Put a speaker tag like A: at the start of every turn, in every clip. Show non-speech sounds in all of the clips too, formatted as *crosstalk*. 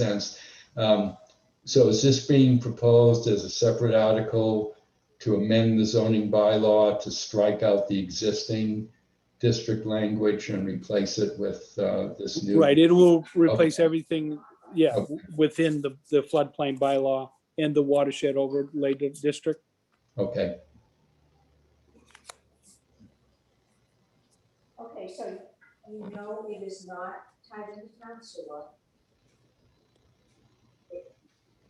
A: sense. Um, So is this being proposed as a separate article to amend the zoning bylaw to strike out the existing district language and replace it with uh, this new?
B: Right, it will replace everything, yeah, w- within the, the floodplain bylaw and the watershed overlay di- district.
A: Okay,
C: Okay, so you know it is not tied to the town sewer. It-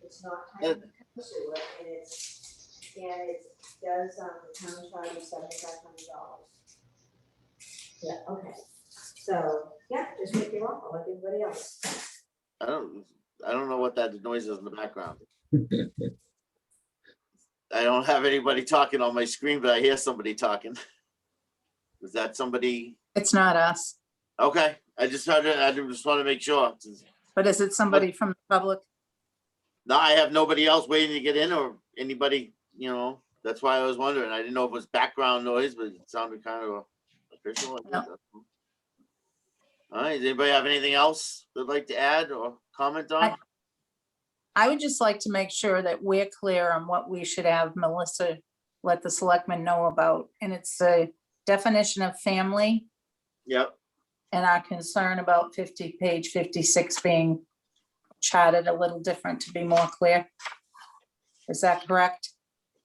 C: It's not tied to the town sewer and it's, and it does, um, the town charge is seventy-five hundred dollars. Yeah, okay, so, yeah, just make it awful like everybody else.
D: I don't, I don't know what that noise is in the background. I don't have anybody talking on my screen, but I hear somebody talking. Was that somebody?
E: It's not us,
D: Okay, I just had, to- I just want to make sure.
E: but is it somebody from the public?
D: No, I have nobody else waiting to get in or anybody, you know, that's why I was wondering. I didn't know if it was background noise, but it sounded kind of official. I guess. All right, does anybody have anything else they'd like to add or comment on?
E: I- I would just like to make sure that we're clear on what we should have Melissa let the selectmen know about. And it's the definition of family
D: Yep,
E: and our concern about fifty, page fifty-six being charted a little different to be more clear. Is that correct?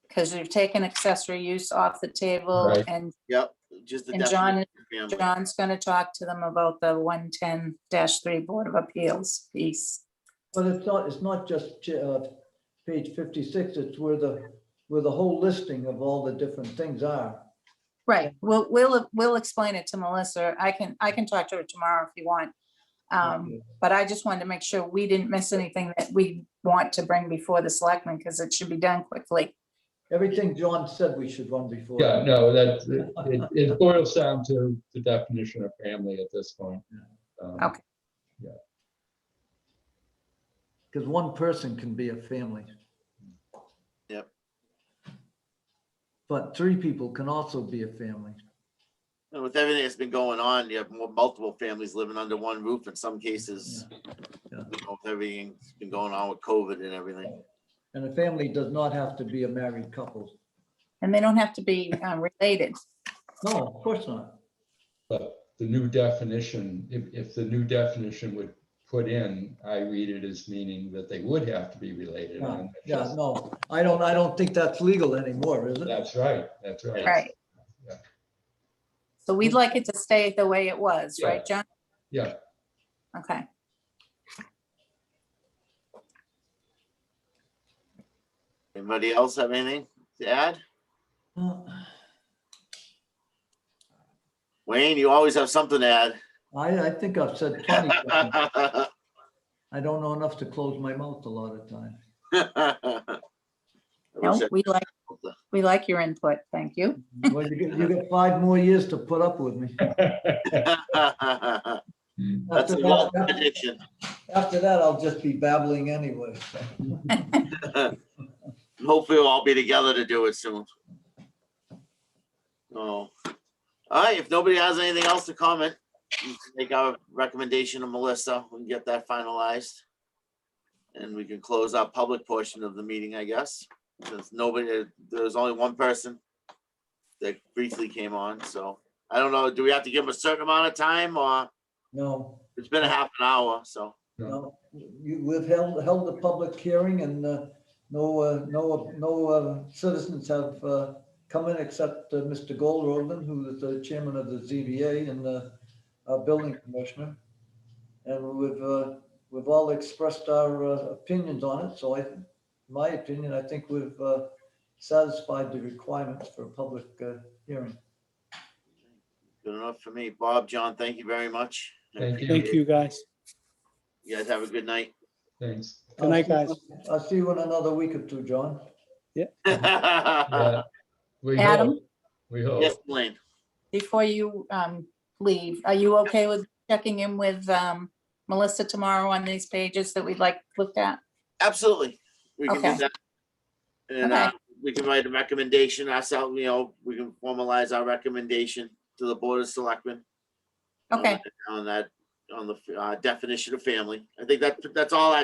E: Because you've taken accessory use off the table
A: Right.
E: and
D: yep, just the
E: And John-
D: definition of family.
E: John's going to talk to them about the one ten three Board of Appeals piece.
F: But it's not, it's not just uh, page 56, it's where the, where the whole listing of all the different things are.
E: Right, we'll, we'll, we'll explain it to Melissa. I can, I can talk to her tomorrow if you want. Um, but I just wanted to make sure we didn't miss anything that we want to bring before the selectmen, because it should be done quickly.
F: Everything John said we should run before.
A: yeah, no, that, it- it boils down to the definition of family at this point. Um,
E: Okay.
F: Because one person can be a family.
D: Yep.
F: But three people can also be a family.
D: And with everything that's been going on, you have more multiple families living under one roof in some cases. you
F: Yeah.
D: know, with Everything that's been going on with COVID and everything.
F: And a family does not have to be a married couple.
E: And they don't have to be uh, related.
F: No, of course not.
A: But the new definition, if, if the new definition would put in, I read it as meaning that they would have to be related.
F: Yeah,
A: and
F: yeah, no, I don't, I don't think that's legal anymore, is it?
A: That's right, that's right.
E: Right.
A: Yeah.
E: So we'd like it to stay the way it was,
A: Yeah.
E: right, John?
A: Yeah.
E: Okay,
D: Anybody else have anything to add?
F: Uh,
D: Wayne, you always have something to add. *laughs*
F: I, I think I've said plenty.
A: *laughs*
F: I don't know enough to close my mouth a lot of times.
D: I
E: no,
D: wish I-
E: we like, we like your input, thank you.
F: Well, you get, you get five more years to put up with me.
D: That's *laughs*
A: Mm.
F: After
D: a long
F: *laughs* that,
D: prediction.
F: after that, I'll just be babbling anyway.
D: Hopefully we'll all be together to do it soon. Oh. All right, if nobody has anything else to comment, we can make our recommendation to Melissa, we can get that finalized. And we can close our public portion of the meeting, I guess, since nobody, there was only one person that briefly came on, so I don't know, do we have to give them a certain amount of time or
F: No,
D: it's been a half an hour, so.
F: no, you, we've held, held a public hearing and, uh, no, uh, no, no, uh, citizens have, uh, come in except, uh, Mr. Goldroden, who is the chairman of the ZBA and, uh, our building commissioner. And we've, uh, we've all expressed our, uh, opinions on it, so I, my opinion, I think we've, uh, satisfied the requirements for a public, uh, hearing.
D: Good enough for me. Bob, John, thank you very much. I
A: Thank you.
D: appreciate
B: Thank
D: it.
B: you, guys.
D: You guys have a good night.
A: Thanks.
B: Good night,
F: I'll see-
B: guys.
F: I'll see you in another week or two, John.
D: Uh,
A: Yeah. We
E: Adam?
A: hope, we
D: *laughs* Yes,
A: hope.
D: Blaine.
E: Before you um, leave, are you okay with checking in with um, Melissa tomorrow on these pages that we'd like looked at?
D: Absolutely. We can do
E: Okay.
D: that. And uh, we can write a recommendation ourselves, you know, we can formalize our recommendation to the Board of Selectmen. on
E: Okay.
D: that- On that, on the uh, definition of family. I think that, that's all I